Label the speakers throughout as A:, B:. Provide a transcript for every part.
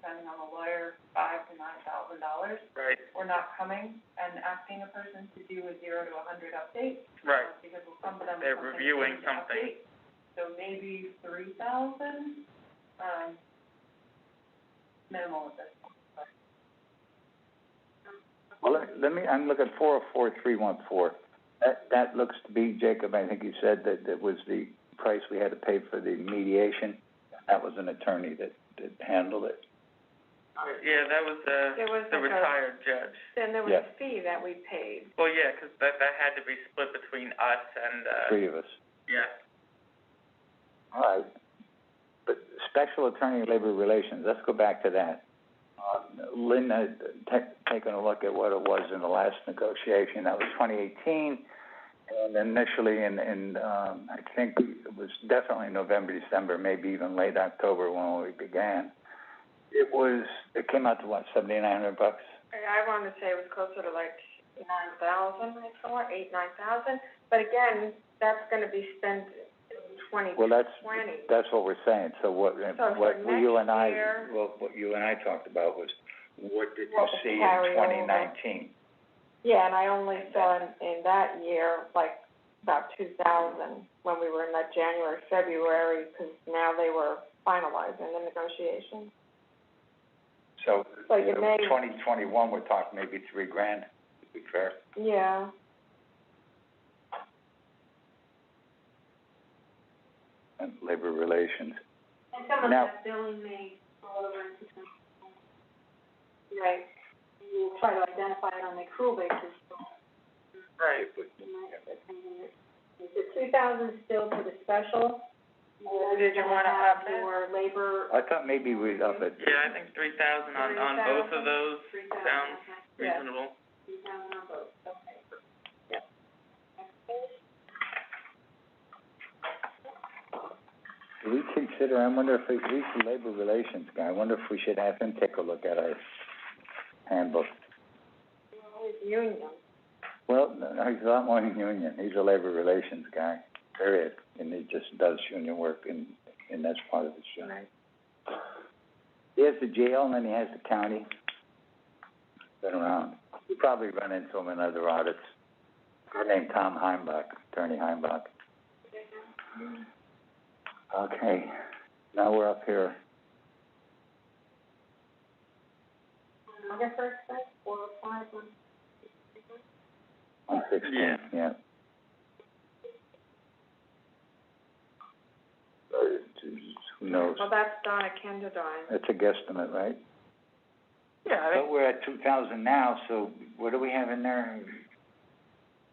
A: spending on a lawyer five to nine thousand dollars.
B: Right,
A: We're not coming and asking a person to do a zero to a hundred update.
B: right.
A: uh, Because some of them.
B: They're
A: something's
B: reviewing
A: going to
B: something.
A: update. So maybe three thousand, um, minimal at this point.
C: Well, let, let me, I'm looking four oh four three one four. That, that looks to be, Jacob, I think you said that, that was the price we had to pay for the mediation. That was an attorney that, that handled it.
B: Uh, Yeah, that was the,
D: There was
B: the
D: like a,
B: retired judge.
D: then there was
C: Yeah.
D: a fee that we paid.
B: Well, yeah, 'cause that, that had to be split between us and, uh,
C: Three of us.
B: yeah.
C: All right. But special attorney labor relations, let's go back to that. Uh, Lynn had ta- taken a look at what it was in the last negotiation, that was twenty eighteen. And initially in, in, um, I think it was definitely November, December, maybe even late October when we began. It was, it came out to what, seventy-nine hundred bucks?
D: I, I wanna say it was closer to like nine thousand, I thought, eight, nine thousand, but again, that's gonna be spent in twenty
C: Well, that's,
D: twenty.
C: that's what we're saying, so what,
D: for
C: what you and I,
D: next year-
C: well, what you and I talked about was, what did you
D: What
C: see
D: carry
C: in
D: over.
C: twenty nineteen?
D: Yeah, and I only saw in, in that year, like, about two thousand, when we were in that January, February, 'cause now they were finalizing the negotiations.
C: So,
D: So you may-
C: twenty twenty-one, we're talking maybe three grand, to be fair.
D: Yeah.
C: And labor relations.
D: And
C: some of Now- that
D: billing may roll over into twenty twenty. Right, you try to identify it on the accrual basis,
B: Right.
D: Is the two thousand still for the special? Or did you wanna up it? Or labor?
C: I thought maybe we'd up it.
B: Yeah, I think three thousand on, on both of those sounds reasonable.
C: Do we consider, I wonder if, we- he's the labor relations guy, I wonder if we should have him take a look at our handbook.
D: Union.
C: Well, no, no, he's a lot more than union, he's a labor relations guy, period, and he just does union work and, and that's part of his job. He has the jail and then he has the county. Been around. You probably run into him in other audits. Guy named Tom Heimbach, Attorney Heimbach. Okay, now we're up here.
D: August first, four oh five, one
C: On sixteen,
B: Yeah.
C: yeah. Uh, Who knows?
D: Well, that's Donna Kendadine.
C: That's a guesstimate, right?
B: Yeah,
C: But we're at two thousand now, so what do we have in there?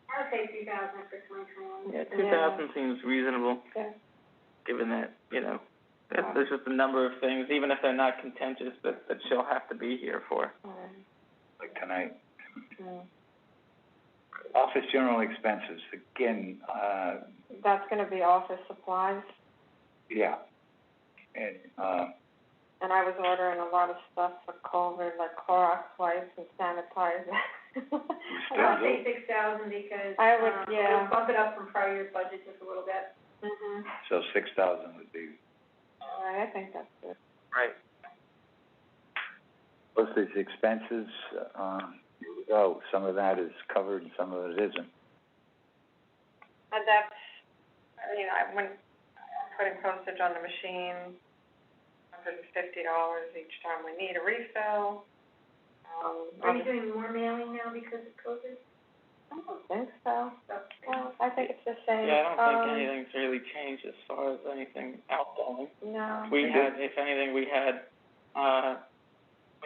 D: I would say two thousand for twenty twenty-one.
B: Yeah, two thousand seems reasonable,
D: Yeah.
B: given that, you know, that there's just a number of things, even if they're not contentious, that, that she'll have to be here for.
C: Like tonight?
D: um,
C: Office general expenses, again, uh,
D: That's gonna be office supplies,
C: yeah. And, uh,
D: and I was ordering a lot of stuff for COVID, like Clorox wipes and sanitizer.
C: still do?
A: six thousand because,
D: I would- um, yeah. it'll
A: bump it up from prior year's budget just a little bit.
D: Mhm.
C: so six thousand would be.
D: All right, I think that's good.
B: Right.
C: Plus these expenses, uh, here we go. some of that is covered, and some of it isn't.
D: And that's, I mean, I went, putting postage on the machine, hundred and fifty dollars each time we need a refill, um. Are you doing more mailing now because of COVID? I don't think so. Well, I think it's the same.
B: Yeah, I don't think
D: Um,
B: anything's really changed as far as anything outgoing.
D: No.
B: We
C: Mhm.
B: had, if anything, we had, uh,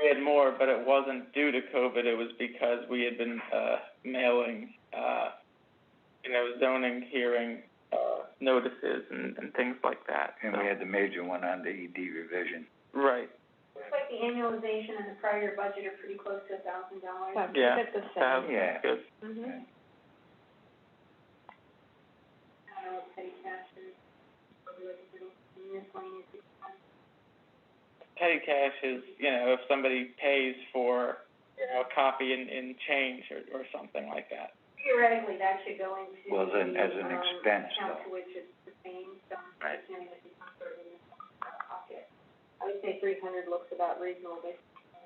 B: we had more, but it wasn't due to COVID, it was because we had been, uh, mailing, uh, you know, zoning hearing, uh, notices and, and things like that,
C: And
B: so-
C: we had the major one on the ED revision.
B: Right,
A: Looks like the annualization and the prior year budget are pretty close to a thousand dollars.
D: So keep
B: Yeah,
D: it the same.
B: thousand,
C: Yeah.
B: good.
D: Mhm.
B: petty cash is, you know, if somebody pays for, you know, a copy in, in change or, or something like that.
A: Theoretically, that should go into
C: Well, then, as an expense, though.
A: account to which it's the same, so
B: Right.
A: assuming that it's not sort of in the pocket.
D: I would say three hundred looks about reasonable based